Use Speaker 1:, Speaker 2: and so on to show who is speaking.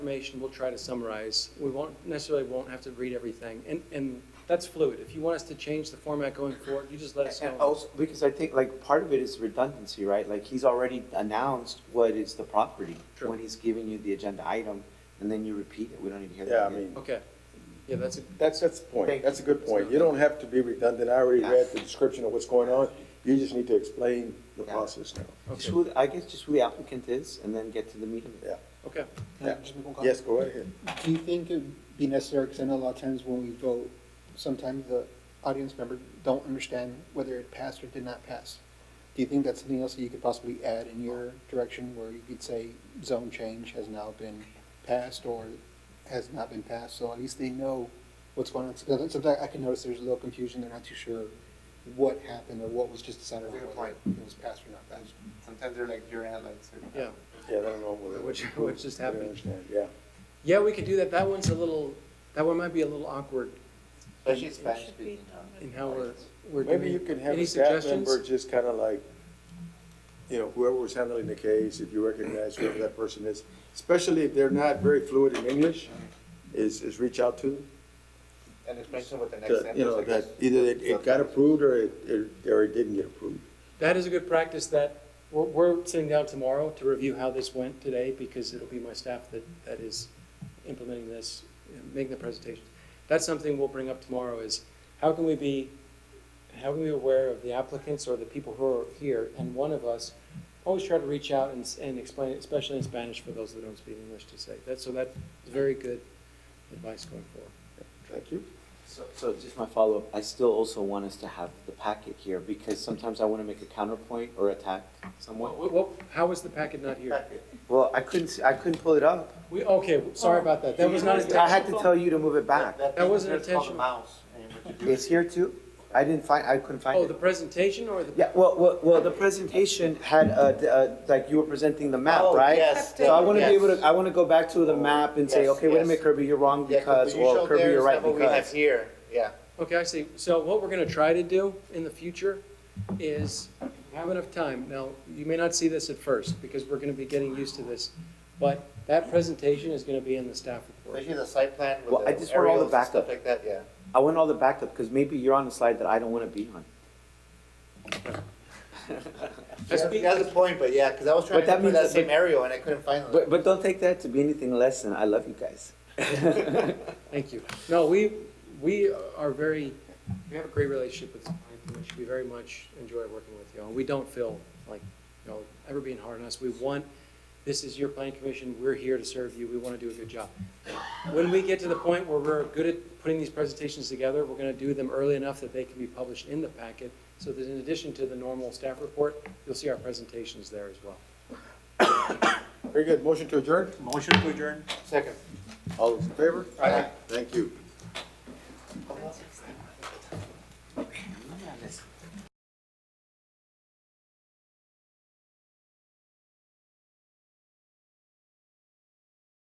Speaker 1: information, we'll try to summarize. We won't, necessarily won't have to read everything, and, and that's fluid. If you want us to change the format going forward, you just let us
Speaker 2: And
Speaker 3: Oh.
Speaker 1: know.
Speaker 2: also, because I think like part of it is redundancy, right? Like he's already announced what is the property
Speaker 1: True.
Speaker 2: when he's giving you the agenda item and then you repeat it. We don't even hear that.
Speaker 3: Yeah, I
Speaker 2: again.
Speaker 3: mean,
Speaker 1: Okay, yeah, that's, a-
Speaker 3: that's, that's the
Speaker 2: Thank
Speaker 3: point,
Speaker 2: you.
Speaker 3: that's a good point, you don't have to be redundant, I already read the description of what's going on, you just need to explain the
Speaker 2: Yeah.
Speaker 3: process now.
Speaker 2: Just
Speaker 1: okay,
Speaker 2: who, I guess just who the applicant is and then get to the meat of it.
Speaker 3: Yeah,
Speaker 1: okay.
Speaker 3: yeah,
Speaker 4: Just make one comment.
Speaker 3: yes, go right ahead.
Speaker 4: Do you think it'd be necessary, because I know a lot of times when we vote, sometimes the audience member don't understand whether it passed or did not pass. Do you think that's something else that you could possibly add in your direction where you could say zone change has now been passed or has not been passed? So at least they know what's going on. Sometimes sometimes I can notice there's a little confusion, they're not too sure what happened or what was just decided on,
Speaker 5: Fair
Speaker 4: whether
Speaker 5: point.
Speaker 4: it was passed or not passed.
Speaker 5: Sometimes they're like pure analytes. they're-
Speaker 1: Yeah,
Speaker 3: Yeah, I don't know whether.
Speaker 1: Which- which just
Speaker 3: I don't
Speaker 1: happened.
Speaker 3: understand. Yeah,
Speaker 1: yeah, we could do that. That one's a little, that one might be a little awkward
Speaker 5: Especially Spanish speaking.
Speaker 1: in how we're, we're doing.
Speaker 3: maybe you can have
Speaker 1: Any
Speaker 3: a staff
Speaker 1: suggestions?
Speaker 3: member just kind of like, you know, whoever was handling the case, if you recognize whoever that person is, especially if they're not very fluid in English, is, is reach out to them.
Speaker 5: And especially with the next
Speaker 3: to,
Speaker 5: sentence.
Speaker 3: You know,
Speaker 5: like
Speaker 3: that
Speaker 5: it's-
Speaker 3: either it, it got approved or it, it, or it didn't get approved.
Speaker 1: That is a good practice that, we're, we're sitting down tomorrow to review how this went today, because it'll be my staff that, that is implementing this, and making the presentation. That's something we'll bring up tomorrow is, how can we be, how can we be aware of the applicants or the people who are here? And one of us, always try to reach out and, s- and explain, it, especially in Spanish for those that don't speak English to say. That, so that's very good advice going forward.
Speaker 3: Thank you.
Speaker 2: So, so just my follow-up, I still also want us to have the packet here because sometimes I want to make a counterpoint or attack someone.
Speaker 1: What, what, how was the packet not
Speaker 2: Uh,
Speaker 1: here?
Speaker 2: Well, I couldn't, s- I couldn't pull it up.
Speaker 1: We, okay, sorry about that. That was not
Speaker 2: uh, I
Speaker 1: intentional.
Speaker 2: had to tell you to move it back.
Speaker 1: That
Speaker 5: thing
Speaker 1: wasn't
Speaker 5: that's called a
Speaker 1: intentional.
Speaker 5: Mouse. and what you do
Speaker 2: It's
Speaker 5: is-
Speaker 2: here too? I didn't find, I couldn't find it.
Speaker 1: Oh, the presentation or the?
Speaker 2: Yeah, well, well, well, the presentation had, uh, d- uh, like you were presenting the map,
Speaker 5: Oh,
Speaker 2: right?
Speaker 5: yes,
Speaker 2: So I want to be
Speaker 5: yes.
Speaker 2: able to, I want to go back to the
Speaker 5: Oh,
Speaker 2: map and say,
Speaker 5: yes,
Speaker 2: okay, wait a
Speaker 5: yes.
Speaker 2: minute, Kirby, you're wrong
Speaker 5: Yeah,
Speaker 2: because,
Speaker 5: what you
Speaker 2: or
Speaker 5: showed
Speaker 2: Kirby,
Speaker 5: there
Speaker 2: you're
Speaker 5: is
Speaker 2: right
Speaker 5: not What we have
Speaker 2: because.
Speaker 5: here, yeah.
Speaker 1: Okay, I see. So what we're gonna try to do in the future is have enough time. Now, you may not see this at first, because we're gonna be getting used to this, but that presentation is gonna be in the staff report.
Speaker 5: Especially the site plan
Speaker 2: Well,
Speaker 5: with
Speaker 2: I
Speaker 5: the
Speaker 2: just want all the
Speaker 5: aerials and
Speaker 2: backup.
Speaker 5: stuff like that, yeah.
Speaker 2: I want all the backup because maybe you're on a slide that I don't want to be on.
Speaker 1: That's
Speaker 5: That's
Speaker 1: be-
Speaker 5: that's the point, but yeah, because I was trying
Speaker 2: But
Speaker 5: to
Speaker 2: that
Speaker 5: remember
Speaker 2: means
Speaker 5: that
Speaker 2: that-
Speaker 5: same aerial and I couldn't find it.
Speaker 2: But, but don't take that to be anything less than I love you guys.
Speaker 1: Thank you. No, we, we are very, we have a great relationship with the planning commission. We very much enjoy working with you, and we don't feel like, you know, ever being hard on us. We want, this is your planning commission, we're here to serve you, we want to do a good job. When we get to the point where we're good at putting these presentations together, we're going to do them early enough that they can be published in the packet, so that in addition to the normal staff report, you'll see our presentations there as well.
Speaker 3: Very good. Motion to adjourn?
Speaker 5: Second.
Speaker 3: All those in favor?
Speaker 5: Aye.
Speaker 3: Thank you.